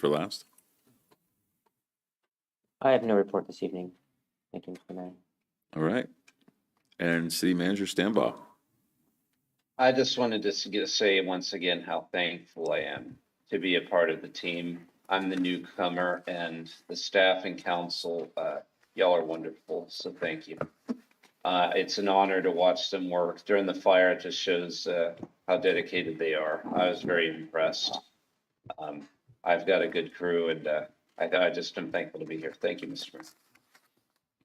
for last? I have no report this evening. Thank you, Mr. Mayor. All right. And city manager standby. I just wanted to s- get- say once again how thankful I am to be a part of the team. I'm the newcomer and the staff and council, uh, y'all are wonderful, so thank you. Uh, it's an honor to watch them work during the fire. It just shows, uh, how dedicated they are. I was very impressed. Um, I've got a good crew and, uh, I, I just am thankful to be here. Thank you, Mr. Mayor.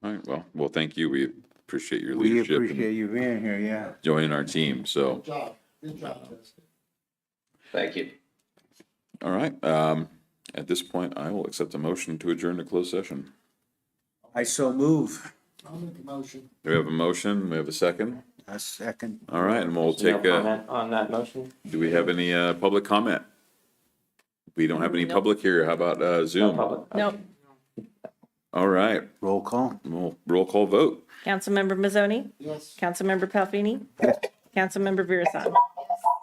All right, well, well, thank you. We appreciate your We leadership appreciate and you being here, yeah. joining our team, so. Thank you. All right, um, at this point, I will accept a motion to adjourn to closed session. I so move. Do we have a motion? We have a second? A second. All right, and we'll No take a, comment on that motion? do we have any, uh, public comment? We don't have any public here. How about, uh, No Zoom? public. No. All right, Roll call. we'll roll call vote. Councilmember Mazzoni? Yes. Councilmember Palfini? Councilmember Virasan?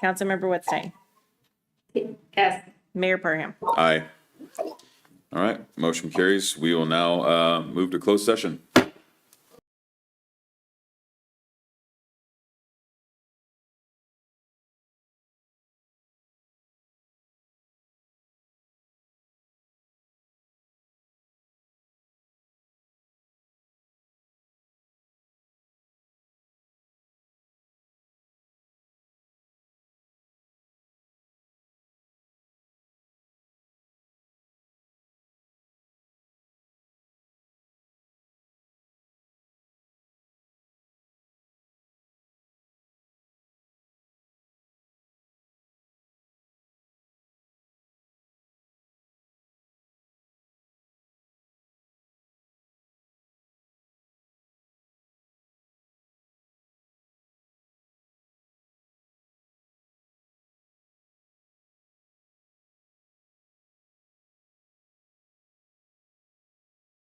Councilmember Whitstein? Yes. Mayor Perham? Aye. All right, motion carries. We will now, uh, move to closed session.